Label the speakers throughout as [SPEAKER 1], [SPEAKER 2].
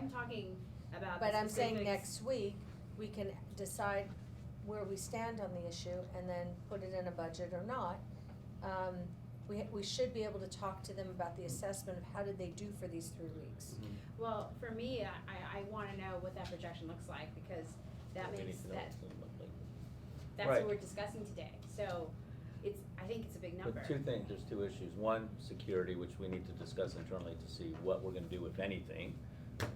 [SPEAKER 1] I'm talking about the
[SPEAKER 2] But I'm saying
[SPEAKER 1] specifics.
[SPEAKER 2] next week, we can decide where we stand on the issue and then put it in a budget or not. Um, we, we should be able to talk to them about the assessment of how did they do for these three weeks.
[SPEAKER 1] Well, for me, I, I wanna know what that projection looks like, because that
[SPEAKER 3] We need
[SPEAKER 1] means
[SPEAKER 3] to know
[SPEAKER 1] that,
[SPEAKER 3] what's gonna look like.
[SPEAKER 1] that's what
[SPEAKER 4] Right.
[SPEAKER 1] we're discussing today, so it's, I think it's a big number.
[SPEAKER 3] But two things, there's two issues. One, security, which we need to discuss internally to see what we're gonna do, if anything.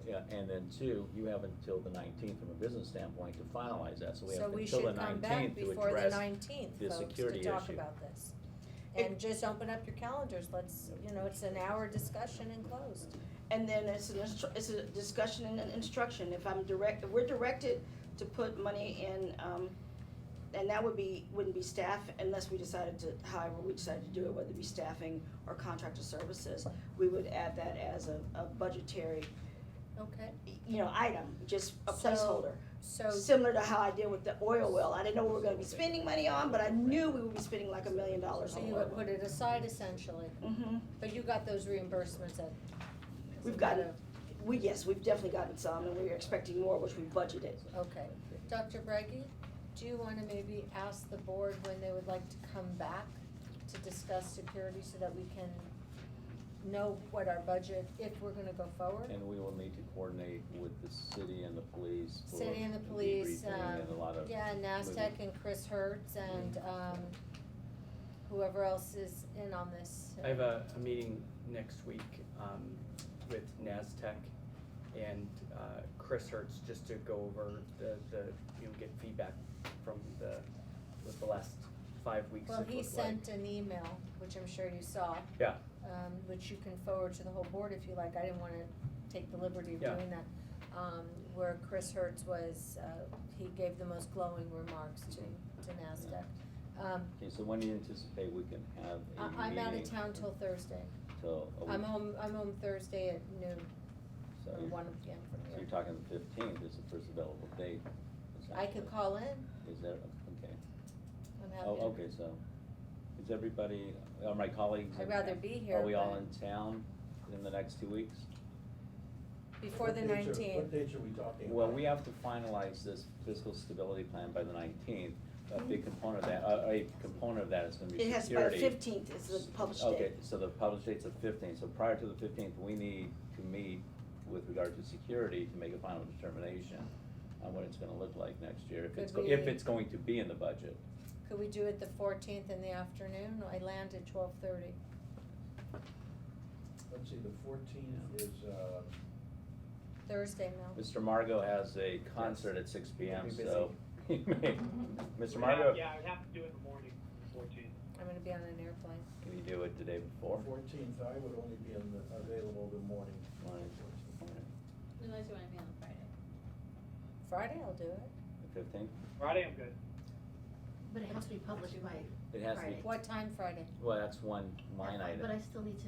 [SPEAKER 3] Yeah, and then two, you have until the nineteenth from a business standpoint to finalize that, so we
[SPEAKER 2] So
[SPEAKER 3] have
[SPEAKER 2] we
[SPEAKER 3] until the
[SPEAKER 2] should come back
[SPEAKER 3] nineteenth to
[SPEAKER 2] before the
[SPEAKER 3] address.
[SPEAKER 2] nineteenth,
[SPEAKER 3] the
[SPEAKER 2] folks, to
[SPEAKER 3] security
[SPEAKER 2] talk
[SPEAKER 3] issue.
[SPEAKER 2] about this.
[SPEAKER 5] It-
[SPEAKER 2] And just open up your calendars, let's, you know, it's an hour discussion and closed.
[SPEAKER 5] And then it's an, instru- it's a discussion and an instruction, if I'm direct, if we're directed to put money in, um, and that would be, wouldn't be staff unless we decided to, however we decided to do it, whether it be staffing or contractor services, we would add that as a, a budgetary,
[SPEAKER 2] Okay.
[SPEAKER 5] you know, item, just a
[SPEAKER 2] So-
[SPEAKER 5] placeholder.
[SPEAKER 2] So,
[SPEAKER 5] Similar to how I did with the oil well, I didn't know what we were gonna be spending money on, but I knew we would be spending like a million dollars
[SPEAKER 2] so
[SPEAKER 5] on
[SPEAKER 2] you
[SPEAKER 5] oil
[SPEAKER 2] would put it aside essentially,
[SPEAKER 5] hmm
[SPEAKER 2] but you got those reimbursements at.
[SPEAKER 5] We've gotten- we, yes, we've definitely gotten some, and we were expecting more, which we budgeted.
[SPEAKER 2] Okay. Dr. Bragi, do you wanna maybe ask the board when they would like to come back to discuss security so that we can know what our budget, if we're gonna go forward?
[SPEAKER 3] And we will need to coordinate with the city and the police. for
[SPEAKER 2] City and the police,
[SPEAKER 3] debriefing And a
[SPEAKER 2] um,
[SPEAKER 3] lot of,
[SPEAKER 2] Yeah, NASDAQ and Chris Hertz and, um, whoever else is in on this.
[SPEAKER 6] I have a, a meeting next week, um, with NASTEC and, uh, Chris Hertz, just to go over the, the, you know, get feedback from the, what the last five weeks
[SPEAKER 2] Well,
[SPEAKER 6] have looked like.
[SPEAKER 2] he sent an email, which I'm sure you saw.
[SPEAKER 6] Yeah.
[SPEAKER 2] Um, which you can forward to the whole board if you like, I didn't wanna take the liberty of
[SPEAKER 6] Yeah.
[SPEAKER 2] doing that. Um, where Chris Hertz was, uh, he gave the most glowing remarks to, to NASDAQ. Um,
[SPEAKER 3] okay, so when do you anticipate we can have a meeting?
[SPEAKER 2] I, I'm out of town till Thursday,
[SPEAKER 3] Till a
[SPEAKER 2] I'm
[SPEAKER 3] week?
[SPEAKER 2] home, I'm home Thursday at noon,
[SPEAKER 3] So
[SPEAKER 2] or
[SPEAKER 3] you're-
[SPEAKER 2] one P M from
[SPEAKER 3] so
[SPEAKER 2] here.
[SPEAKER 3] you're talking the fifteenth is the first available date.
[SPEAKER 2] I could
[SPEAKER 3] essentially.
[SPEAKER 2] call in,
[SPEAKER 3] Is that, okay.
[SPEAKER 2] I'm happy.
[SPEAKER 3] Oh,
[SPEAKER 2] to-
[SPEAKER 3] okay, so, is everybody, are my colleagues? in
[SPEAKER 2] I'd rather
[SPEAKER 3] town?
[SPEAKER 2] be here,
[SPEAKER 3] Are we all
[SPEAKER 2] but-
[SPEAKER 3] in town in the next two weeks?
[SPEAKER 2] Before the
[SPEAKER 7] What dates are-
[SPEAKER 2] nineteenth.
[SPEAKER 7] What dates are we talking about?
[SPEAKER 3] Well, we have to finalize this fiscal stability plan by the nineteenth. A big
[SPEAKER 2] Mm-hmm.
[SPEAKER 3] component of that, a, a component of that is gonna be
[SPEAKER 5] It
[SPEAKER 3] security.
[SPEAKER 5] has, by the fifteenth is the published
[SPEAKER 3] Okay,
[SPEAKER 5] date.
[SPEAKER 3] so the published date's the fifteenth, so prior to the fifteenth, we need to meet with regard to security to make a final determination on what it's gonna look like next year, if it's,
[SPEAKER 2] Could
[SPEAKER 3] go- if
[SPEAKER 2] we-
[SPEAKER 3] it's going to be in the budget.
[SPEAKER 2] Could we do it the fourteenth in the afternoon? I land at twelve thirty.
[SPEAKER 7] Let's see, the fourteenth is, uh,
[SPEAKER 2] Thursday, Mel.
[SPEAKER 3] Mr. Margot has a concert at six P M,
[SPEAKER 6] He'll be
[SPEAKER 3] so. he may- Mr.
[SPEAKER 8] We'd have-
[SPEAKER 3] Margot,
[SPEAKER 8] Yeah, I'd have to do it in the morning, fourteen.
[SPEAKER 2] I'm gonna be on an airplane.
[SPEAKER 3] can you do it the day before?
[SPEAKER 7] fourteenth, I would only be in the- available the morning.
[SPEAKER 3] Morning.
[SPEAKER 1] Unless you wanna be on Friday.
[SPEAKER 2] Friday I'll do it.
[SPEAKER 3] The fifteenth?
[SPEAKER 8] Friday, I'm good.
[SPEAKER 9] But it has to be published by.
[SPEAKER 3] It has to be,
[SPEAKER 9] Friday.
[SPEAKER 2] What time Friday?
[SPEAKER 3] well, that's one line
[SPEAKER 9] But I
[SPEAKER 3] item.
[SPEAKER 9] still need to.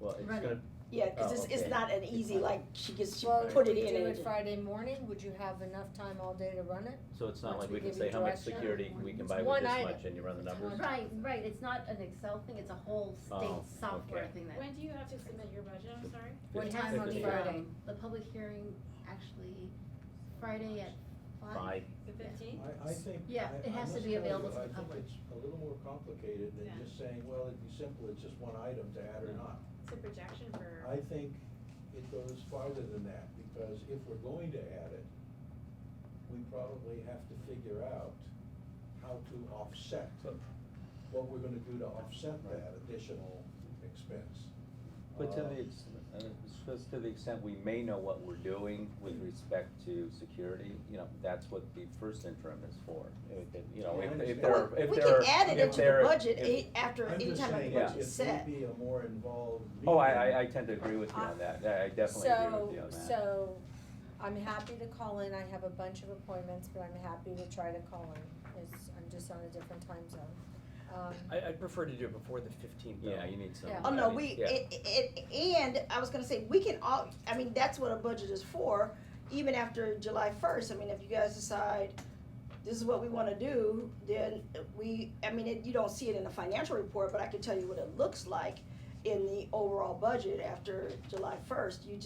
[SPEAKER 3] Well, it's
[SPEAKER 9] Run it.
[SPEAKER 3] gonna,
[SPEAKER 5] Yeah, 'cause
[SPEAKER 3] Oh,
[SPEAKER 5] it's,
[SPEAKER 3] okay.
[SPEAKER 5] it's not an easy, like, she gets, she
[SPEAKER 2] Well,
[SPEAKER 5] put
[SPEAKER 2] could
[SPEAKER 5] it
[SPEAKER 2] we
[SPEAKER 5] in
[SPEAKER 2] do
[SPEAKER 5] and.
[SPEAKER 2] it Friday morning? Would you have enough time all day to run it?
[SPEAKER 3] so it's not
[SPEAKER 2] Once
[SPEAKER 3] like
[SPEAKER 2] we
[SPEAKER 3] we can
[SPEAKER 2] give you
[SPEAKER 3] say how much
[SPEAKER 2] direction.
[SPEAKER 3] security we can buy
[SPEAKER 2] It's
[SPEAKER 3] with
[SPEAKER 2] one
[SPEAKER 3] this
[SPEAKER 2] item.
[SPEAKER 3] much and you run the
[SPEAKER 2] It's
[SPEAKER 3] numbers.
[SPEAKER 2] one-
[SPEAKER 9] Right, right, it's not an Excel thing, it's a whole
[SPEAKER 3] Oh,
[SPEAKER 9] state software
[SPEAKER 3] okay.
[SPEAKER 9] thing that.
[SPEAKER 1] When do you have to submit your budget, I'm sorry?
[SPEAKER 2] What
[SPEAKER 9] It
[SPEAKER 3] Fif-
[SPEAKER 9] has
[SPEAKER 2] time on
[SPEAKER 9] to be,
[SPEAKER 3] 15th.
[SPEAKER 2] Friday?
[SPEAKER 9] um, The public hearing, actually, Friday at five.
[SPEAKER 3] Five,
[SPEAKER 1] The fifteenth?
[SPEAKER 7] I, I think.
[SPEAKER 9] Yeah,
[SPEAKER 7] I-
[SPEAKER 9] it
[SPEAKER 7] I
[SPEAKER 9] has to
[SPEAKER 7] must
[SPEAKER 9] be
[SPEAKER 7] tell
[SPEAKER 9] available
[SPEAKER 7] you,
[SPEAKER 9] to the public.
[SPEAKER 7] I think it's a little more complicated
[SPEAKER 1] Yeah.
[SPEAKER 7] than just saying, well, it'd be simple, it's just one item to add or not.
[SPEAKER 1] It's a projection for.
[SPEAKER 7] I think it goes farther than that, because if we're going to add it, we probably have to figure out how to offset, what we're gonna do to offset that additional expense.
[SPEAKER 3] But to
[SPEAKER 7] Uh,
[SPEAKER 3] the, ex- uh, just to the extent we may know what we're doing with respect to security, you know, that's what the first interim is for. If it- You know, if,
[SPEAKER 7] Yeah, I
[SPEAKER 3] if
[SPEAKER 7] understand.
[SPEAKER 3] there, are-
[SPEAKER 7] Well,
[SPEAKER 3] if
[SPEAKER 5] We
[SPEAKER 3] there.
[SPEAKER 5] can
[SPEAKER 3] are-
[SPEAKER 5] add it
[SPEAKER 3] if
[SPEAKER 7] if
[SPEAKER 5] into the
[SPEAKER 3] there-
[SPEAKER 5] budget
[SPEAKER 3] if-
[SPEAKER 5] a- after,
[SPEAKER 7] I'm
[SPEAKER 5] anytime
[SPEAKER 7] just
[SPEAKER 5] the
[SPEAKER 7] saying,
[SPEAKER 3] budget
[SPEAKER 7] if
[SPEAKER 5] budget's
[SPEAKER 7] it
[SPEAKER 5] set.
[SPEAKER 7] would be a more involved meeting.
[SPEAKER 3] Oh, I, I, I tend to agree with you on that, I I definitely agree with you on that.
[SPEAKER 2] So, so I'm happy to call in. I have a bunch of appointments, but I'm happy to try to call in. It's, I'm just on a different time zone. Um,
[SPEAKER 6] I, I'd prefer to do it before the fifteenth though.
[SPEAKER 3] Yeah, you need some.
[SPEAKER 2] Yeah.
[SPEAKER 5] Oh, no,
[SPEAKER 3] I
[SPEAKER 5] we,
[SPEAKER 3] mean, yeah.
[SPEAKER 5] it, it, and I was gonna say, we can all, I mean, that's what a budget is for, even after July first, I mean, if you guys decide this is what we wanna do, then we, I mean, it, you don't see it in the financial report, but I can tell you what it looks like in the overall budget after July first, you